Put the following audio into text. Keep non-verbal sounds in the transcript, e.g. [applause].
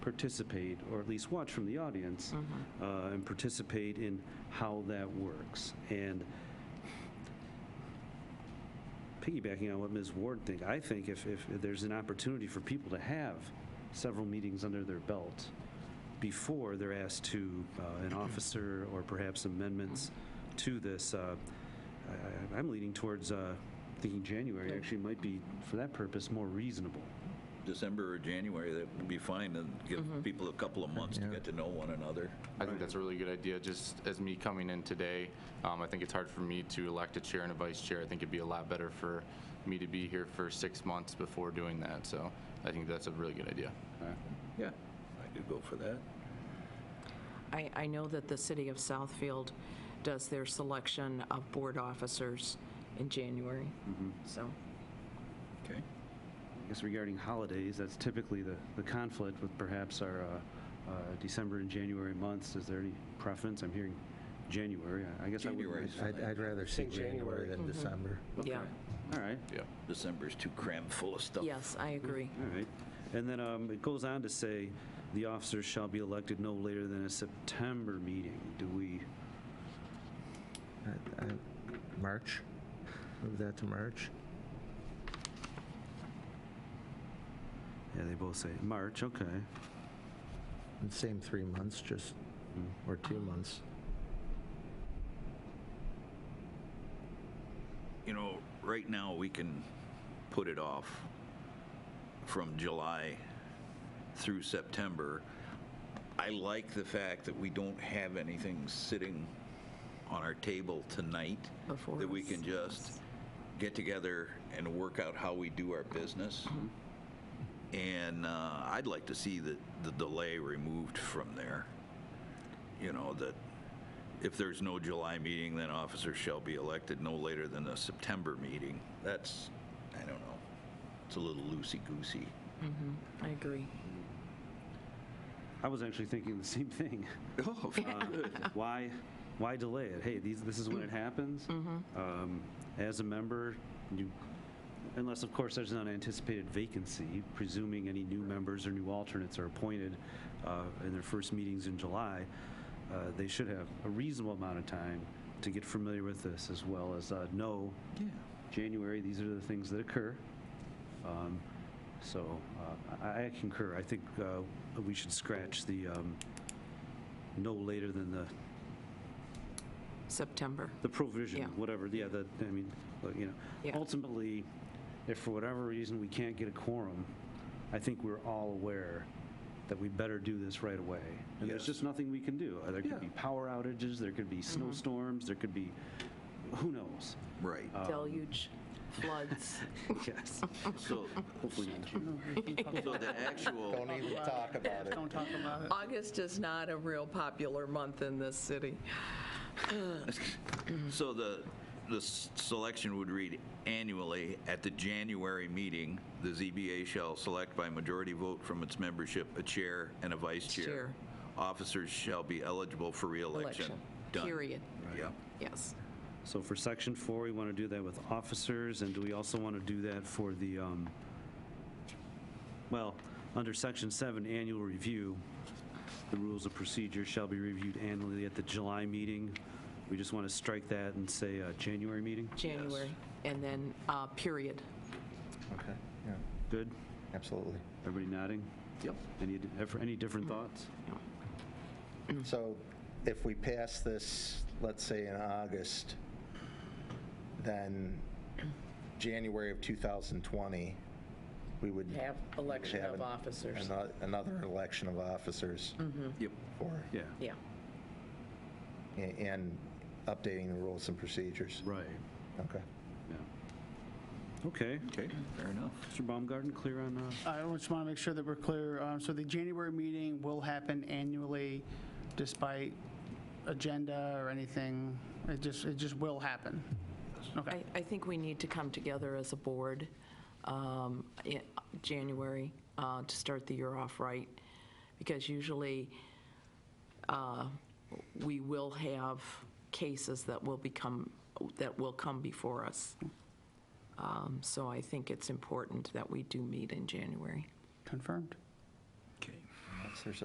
participate, or at least watch from the audience, Mm. uh, and participate in how that works. And piggybacking on what Ms. Ward think, I think if, if there's an opportunity for people to have several meetings under their belt before they're asked to, uh, an officer or perhaps amendments to this, uh, I- I- I'm leaning towards uh, thinking January actually might be, for that purpose, more reasonable. December or January, that would be fine, and Mm-hmm. give people a couple of months to get to know one another. I think that's a really good idea. Just as me coming in today, um, I think it's hard for me to elect a chair and a vice chair. I think it'd be a lot better for me to be here for six months before doing that. So I think that's a really good idea. Yeah, I could go for that. I, I know that the city of Southfield does their selection of board officers in January, so. Okay. I guess regarding holidays, that's typically the, the conflict with perhaps our uh, uh, December and January months. Is there any preference? I'm hearing January. I I guess I January. would. I'd, I'd rather see Think January. January Mm-hmm. than December. Yeah, All right, Yeah. December's too crammed full of stuff. yes, I agree. all right. And then um, it goes on to say, the officers shall be elected no later than a September meeting. Do we, I- I- March? Move that to March? yeah, they both say March, okay. And Same three months, just, or two months. You know, right now, we can put it off from July through September. I like the fact that we don't have anything sitting on our table tonight. Before That we us. can just get together and work out how we do our business. Mm-hmm. And uh, I'd like to see the, the delay removed from there. You know, that if there's no July meeting, then officers shall be elected no later than the September meeting. That's, I don't know, it's a little loosey-goosey. I agree. I was actually thinking the same thing. [laughs] Oh, Uh, why, why delay it? Hey, these, this is when it happens. Um, As a member, you, unless, of course, there's an unanticipated vacancy, presuming any new members or new alternates are appointed uh, in their first meetings in July, uh, they should have a reasonable amount of time to get familiar with this, as well as uh, know, January, these are the things that occur. Um, So uh, I I concur. I think uh, we should scratch the um, no later than the September. the provision, Yeah. whatever, yeah, that, I mean, look, you know, Yeah. ultimately, if for whatever reason we can't get a quorum, I think we're all aware that we better do this right away. And there's Yes. just nothing we can do. Uh, There could be power outages, there could be Mm-hmm. snowstorms, there could be, who [laughs] knows? [laughs] Right. Um, Deluge, [laughs] floods. Yes. So, Hopefully, so the actual, even talk about it. Don't talk about it. August is not a real popular month in this city. so the, the s- selection would read annually at the January meeting, the ZBA shall select by majority vote from its membership a chair and a vice chair. Chair. Officers shall be eligible for reelection. Election, Done. period. Yep. Yes. so for section four, we want to do that with officers, and do we also want to do that for the, um, well, under section seven, annual review, the rules of procedure shall be reviewed annually at the July meeting. We just want to strike that and say uh, January meeting? January, and then, uh, period. Okay, yeah, Good? absolutely. [clears throat] Everybody nodding? Yep. Mm-hmm. Any, have any different thoughts? So if we pass this, let's say in August, then January of 2020, we would. Have election of have an- officers. Mm-hmm. ano- Another election of officers Yep. for, Yeah, Yeah. a- and updating the rules and procedures. right, Okay. yeah. Okay, Okay, fair enough. Mr. Baumgarten, clear on, uh, I just want to make sure that we're clear. Um, So the January meeting will happen annually despite agenda or anything. It just, it just will happen. I, Okay. I think we need to come together as a board um, in January uh, to start the year off right, because usually uh, we will have cases that will become, that will come before us. Um, So I think it's important that we do meet in January. Confirmed. Okay. months or so.